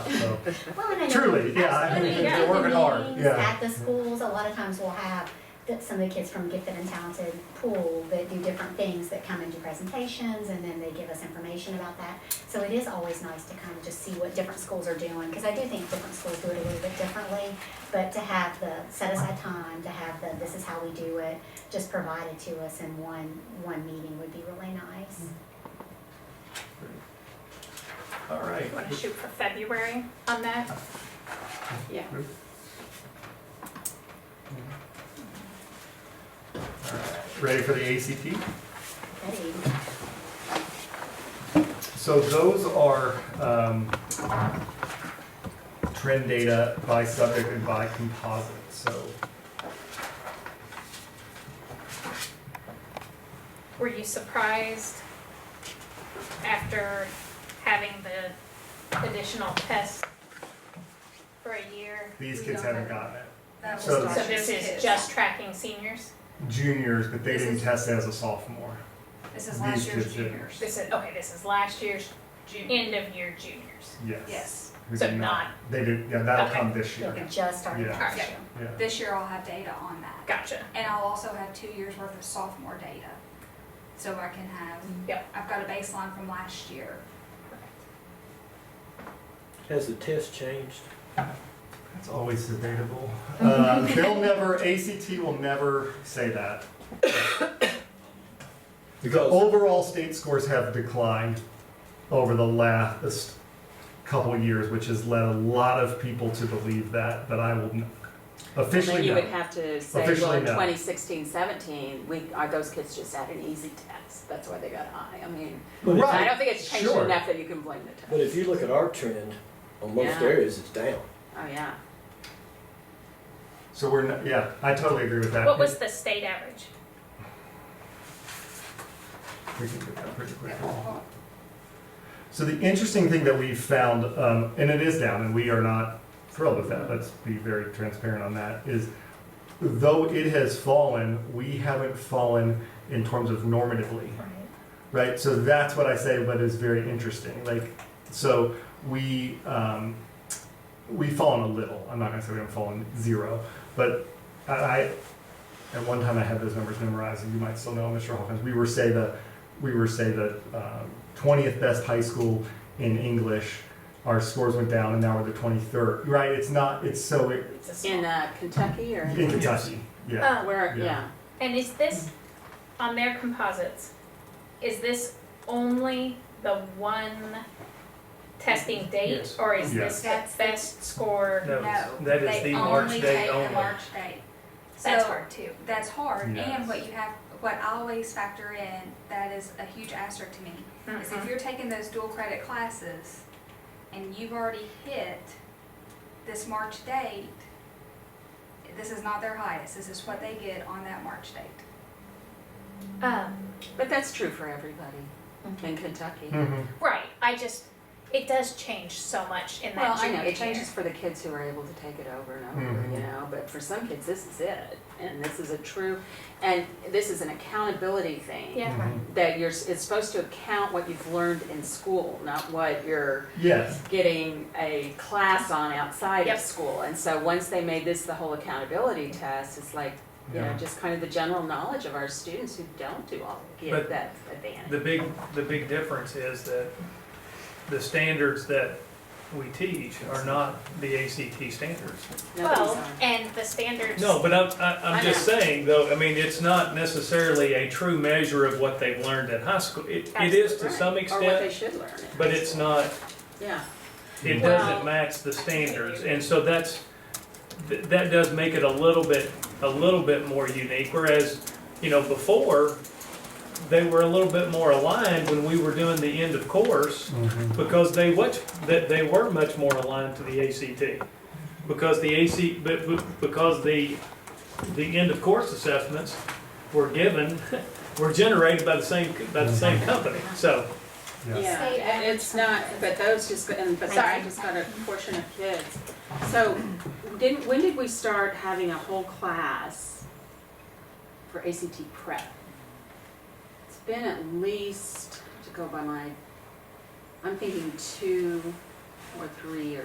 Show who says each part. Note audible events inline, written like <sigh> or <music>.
Speaker 1: Well, and I know-
Speaker 2: Truly, yeah, I
Speaker 1: absolutely,
Speaker 2: mean,
Speaker 1: we
Speaker 3: they're
Speaker 1: do the
Speaker 3: working hard.
Speaker 1: meetings
Speaker 2: Yeah.
Speaker 1: At the schools, a lot of times we'll have that some of the kids from Gifted and Talented pool that do different things that come into presentations and then they give us information about that. So it is always nice to kind of just see what different schools are doing, because I do think different schools do it a little bit differently. But to have the set aside time, to have the, this is how we do it, just provided to us in one, one meeting would be really nice.
Speaker 3: All right.
Speaker 4: Want to shoot for February on that? Yeah.
Speaker 2: All right. Ready for the ACT?
Speaker 1: That evening.
Speaker 2: So those are um, trend data by subject and by composite, so.
Speaker 4: Were you surprised after having the additional test for a year?
Speaker 2: These kids haven't gotten it.
Speaker 5: That was
Speaker 2: So-
Speaker 4: So
Speaker 5: Dodger's
Speaker 4: Oh, this is
Speaker 5: kids.
Speaker 4: just tracking seniors?
Speaker 2: Juniors, but they didn't test as a sophomore.
Speaker 5: This is last
Speaker 2: these
Speaker 5: year's
Speaker 2: kids did.
Speaker 5: juniors.
Speaker 4: This is, okay, this is last year's
Speaker 5: Junior.
Speaker 4: end of year juniors.
Speaker 2: Yes.
Speaker 5: Yes.
Speaker 2: Who
Speaker 4: So
Speaker 2: did
Speaker 4: not-
Speaker 2: They did, yeah, that'll
Speaker 4: Okay.
Speaker 2: come this
Speaker 1: Like
Speaker 2: year.
Speaker 1: just our
Speaker 2: Yeah.
Speaker 1: last
Speaker 4: Yeah.
Speaker 1: year.
Speaker 2: Yeah.
Speaker 5: This year I'll have data on that.
Speaker 4: Gotcha.
Speaker 5: And I'll also have two years worth of sophomore data. So I can have,
Speaker 4: Yep.
Speaker 5: I've got a baseline from last year.
Speaker 6: Has the test changed?
Speaker 2: That's always
Speaker 7: <laughs>
Speaker 2: debatable. Uh, They'll never, ACT will never say that. The
Speaker 6: Because-
Speaker 2: overall state scores have declined over the last couple of years, which has led a lot of people to believe that, but I will n-
Speaker 7: Then
Speaker 2: officially
Speaker 7: you would
Speaker 2: no.
Speaker 7: have to say, well,
Speaker 2: Officially
Speaker 7: in
Speaker 2: no.
Speaker 7: 2016, 17, we, our, those kids just had an easy test, that's why they got high, I mean,
Speaker 6: But if-
Speaker 7: I
Speaker 2: Right.
Speaker 7: don't think it's changed
Speaker 2: Sure.
Speaker 7: enough that you can blame the
Speaker 6: But
Speaker 7: test.
Speaker 6: if you look at our trend, on most
Speaker 7: Yeah.
Speaker 6: areas, it's down.
Speaker 7: Oh, yeah,
Speaker 2: So we're, not- yeah, I totally agree with that.
Speaker 4: What was the state average?
Speaker 2: We can get that pretty quick. So the interesting thing that we've found, um, and it is down, and we are not thrilled with that, let's be very transparent on that, is though it has fallen, we haven't fallen in terms of normatively, right? So that's what I say, but is very interesting. Like, so we, um, we've fallen a little. I'm not gonna say we haven't fallen zero, but I, I at one time I had those numbers memorized, and you might still know, Mr. Hawkins. We were say the we were say the um, twentieth best high school in English. Our scores went down, and now we're the twenty third. Right? It's not. It's so it,
Speaker 4: It's a small-
Speaker 7: in uh, Kentucky or?
Speaker 2: in Kentucky. Yeah.
Speaker 7: Oh, where,
Speaker 2: Yeah.
Speaker 7: yeah,
Speaker 4: And is this, on their composites, is this only the one testing date?
Speaker 8: Yes.
Speaker 4: Or is this the
Speaker 5: Yes.
Speaker 4: best score?
Speaker 5: No,
Speaker 8: No, that is
Speaker 5: They
Speaker 8: the March
Speaker 5: only
Speaker 8: date
Speaker 5: take the
Speaker 8: only.
Speaker 5: March date.
Speaker 4: That's
Speaker 5: So-
Speaker 4: hard too.
Speaker 5: That's hard,
Speaker 2: Yes.
Speaker 5: and what you have, what I always factor in, that is a huge asterisk to me,
Speaker 7: Mm-hmm.
Speaker 5: is if you're taking those dual credit classes and you've already hit this March date, this is not their highest, this is what they get on that March date.
Speaker 4: Um,
Speaker 7: but that's true for everybody in Kentucky.
Speaker 2: Mhm.
Speaker 4: right, I just, it does change so much in
Speaker 7: Well,
Speaker 4: that
Speaker 7: I know,
Speaker 4: junior
Speaker 7: it
Speaker 4: year.
Speaker 7: changes for the kids who are able to take it over and over,
Speaker 2: Mhm.
Speaker 7: you know, but for some kids, this is it, and this is a true, and this is an accountability thing.
Speaker 4: Yeah.
Speaker 2: Mhm.
Speaker 7: That you're, s- it's supposed to account what you've learned in school, not what you're
Speaker 2: mm-hmm. Yes.
Speaker 7: getting a class on outside
Speaker 4: Yep.
Speaker 7: of school. And so once they made this the whole accountability test, it's like, you know,
Speaker 2: Yeah.
Speaker 7: just kind of the general knowledge of our students who don't do all get
Speaker 8: But
Speaker 7: that advantage.
Speaker 8: The big, the big difference is that the standards that we teach are not the ACT standards.
Speaker 7: Nobody's
Speaker 4: Well,
Speaker 7: on.
Speaker 4: and the standards.
Speaker 8: No, but I'm, I-
Speaker 7: I
Speaker 8: I'm just
Speaker 7: know.
Speaker 8: saying though, I mean, it's not necessarily a true measure of what they've learned in high school. It, it is to
Speaker 7: Right.
Speaker 8: some
Speaker 7: Or what they
Speaker 8: extent,
Speaker 7: should learn. at
Speaker 8: but
Speaker 7: high
Speaker 8: it's
Speaker 7: school.
Speaker 8: not,
Speaker 7: Yeah,
Speaker 8: it
Speaker 4: Well-
Speaker 8: doesn't match the standards. And so that's, th- that does make it a little bit, a little bit more unique, whereas, you know, before, they were a little bit more aligned when we were doing the end of course.
Speaker 2: Mm-hmm.
Speaker 8: Because they much, that they were much more aligned to the ACT. Because the AC, but, but- because the, the end of course assessments were given, <laughs> were generated by the same, by the same company, so.
Speaker 2: Yes.
Speaker 7: yeah,
Speaker 1: State
Speaker 7: and it's not, but those just, go- and, but
Speaker 1: Sorry.
Speaker 7: I just got a portion of kids. So didn't, when did we start having a whole class for ACT prep? It's been at least, to go by my, I'm thinking two or three years